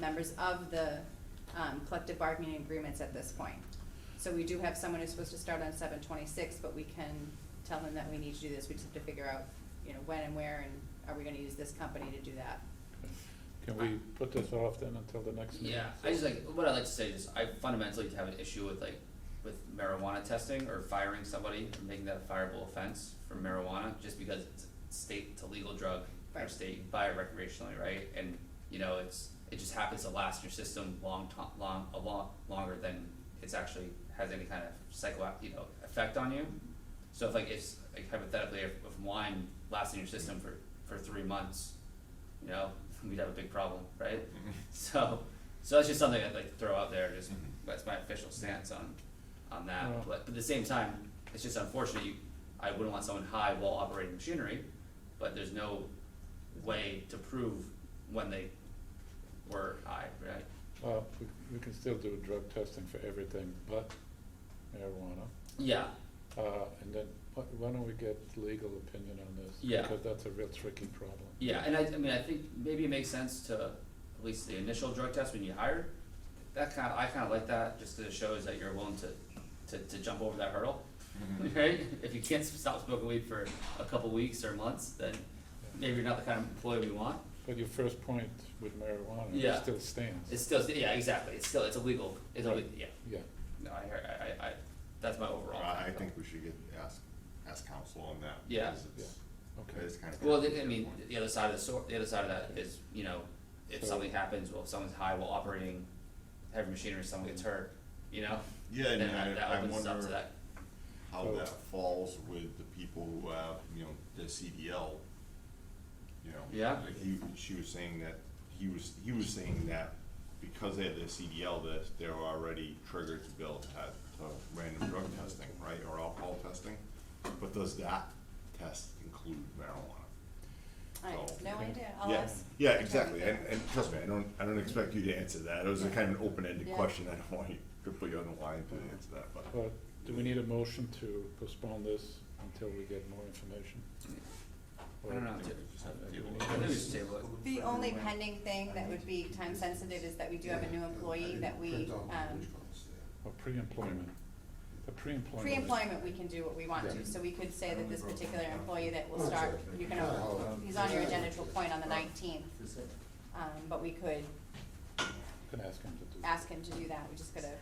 members of the um, collective bargaining agreements at this point. So we do have someone who's supposed to start on seven twenty-six, but we can tell them that we need to do this, we just have to figure out, you know, when and where, and are we gonna use this company to do that? Can we put this off then until the next meeting? Yeah, I just like, what I'd like to say is I fundamentally have an issue with like, with marijuana testing or firing somebody, or making that a fireable offense for marijuana, just because it's a state to legal drug, or Right. state you can buy it recreationally, right? And, you know, it's, it just happens to last in your system long to- long, a lot longer than it's actually has any kind of psycho, you know, effect on you. So if like, if, like hypothetically, if, if wine lasts in your system for, for three months, you know, we'd have a big problem, right? So, so that's just something I'd like to throw out there. Just that's my official stance on, on that. Yeah. But, but at the same time, it's just unfortunate. You, I wouldn't want someone high while operating machinery, but there's no way to prove when they were high, right? Well, we, we can still do drug testing for everything but marijuana. Yeah, Uh, and then, why, why don't we get legal opinion on this? Yeah. Because that's a real tricky problem. yeah. And I, I mean, I think maybe it makes sense to at least the initial drug test when you hire. That kind of I kind of like that just 'cause it shows that you're willing to, to, to jump over that hurdle. Mm-hmm. right? If you can't stop smoking weed for a couple weeks or months, then maybe you're not the kind of employee we want. But your first point with marijuana Yeah. still stands. It's still, yeah, exactly. It's still, it's illegal. It's Right. illegal. Yeah. Yeah, No, I hear. I, I, I that's my overall. Well, I I thought. think we should get, ask, ask council on that. Yeah. because it's- okay. It's kind of. Well, the- I mean, the other side of the sor- the other side of that is, you know, if So- something happens, well, if someone's high while operating heavy machinery, someone gets hurt, you know, Yeah, then and that, that I, I opens up to wonder that. how that falls with the people who have, you know, the CDL, you know. Yeah. like He, she was saying that, he was, he was saying that because they had the CDL, that they're already triggered to bill at, uh, random drug testing, right, or alcohol testing? But does that test include marijuana? I have no idea, I'll Yeah, ask. yeah, exactly, and, and trust me, I don't, I don't expect you to answer that, it was a kind of an open-ended Yeah. question, I don't want you to put you on the line to answer that, but. But do we need a motion to postpone this until we get more information? I don't Or- know. I think we just have to Uh, table we it. I think we should table it. The only pending thing that would be time sensitive is that we do have a new employee that we, um, Or pre-employment, a pre-employment. is- pre-employment, we can do what we want Yeah. to, so we could say that this particular employee that will Oh, start, you can, he's on your agenda to appoint on the nineteenth. Um, but we could Can ask him to do. that. ask him to do that, we just gotta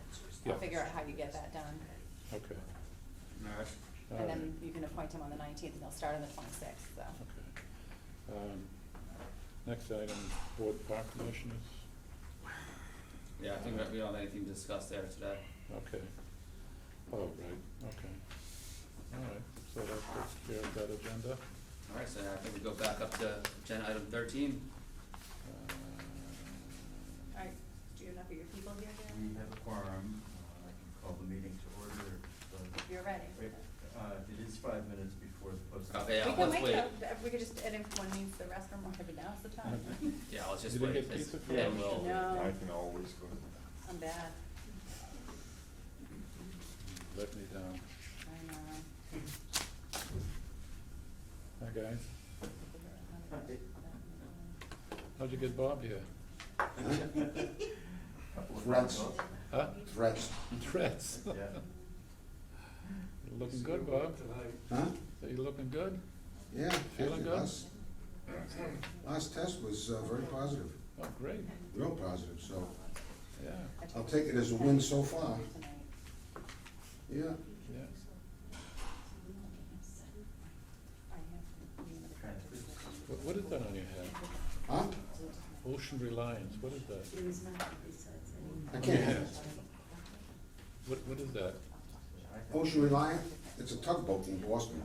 Yeah. figure out how you get that done. Okay. All And right. then you can appoint him on the nineteenth, and he'll start on the twenty-sixth, so. Okay. Um, Next item, board park commissioners, Yeah, I think that we don't have anything to discuss there today. okay. Oh, right, okay. All right, so that takes care of that agenda. All right, so I think we go back up to agenda item thirteen. Uh, All right, do you have enough of your people here, We have a quorum, uh, I can call the meeting to order, but, You're ready. wait, uh, it is five minutes before the post. Okay, We I'll can let's wait, wait. till- we could just, and if one needs the restroom, or if now's the time, Yeah, let's just You didn't wait, get it's- pizza for and lunch? we'll. No. I can always go, I'm bad, Let me down. I know. Hi, guys. How'd you get Bob here? Couple of Rats. calls. Huh? Threats. Threats. Yeah. You're Looking good, Bob. Huh? Are you looking good? Yeah. Feeling good? Last- Last test was uh, very positive, Oh, great, real positive, so yeah, I'll take it as a win so far. Yeah, yeah. What, what is that on your head? huh? Ocean Reliance, what is that? I can't have it. What, what is that? Ocean Oh, Reliant, it's a tugboat in Boston.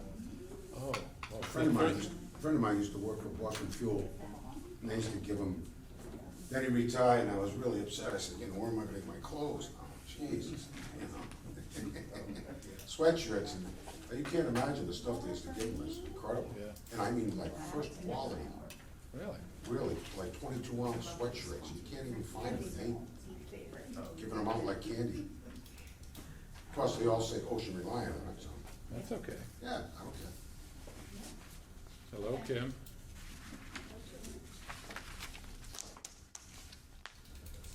Oh. oh, A friend of mine, used- a friend of mine used to work for Boston Fuel, and they used to give him, then he retired, and I was really upset, I said, you know, where am I gonna get my clothes? Oh, Jesus, you know. Sweatshirts, and but you can't imagine the stuff they used to give him, it's incredible. Yeah. And I mean, like, first quality, Really? really, like twenty-two ounce sweatshirts, you can't even find them, they giving them out like candy. Plus, they all say Ocean Reliant on it, so, That's okay. yeah, I don't care. Hello, Kim.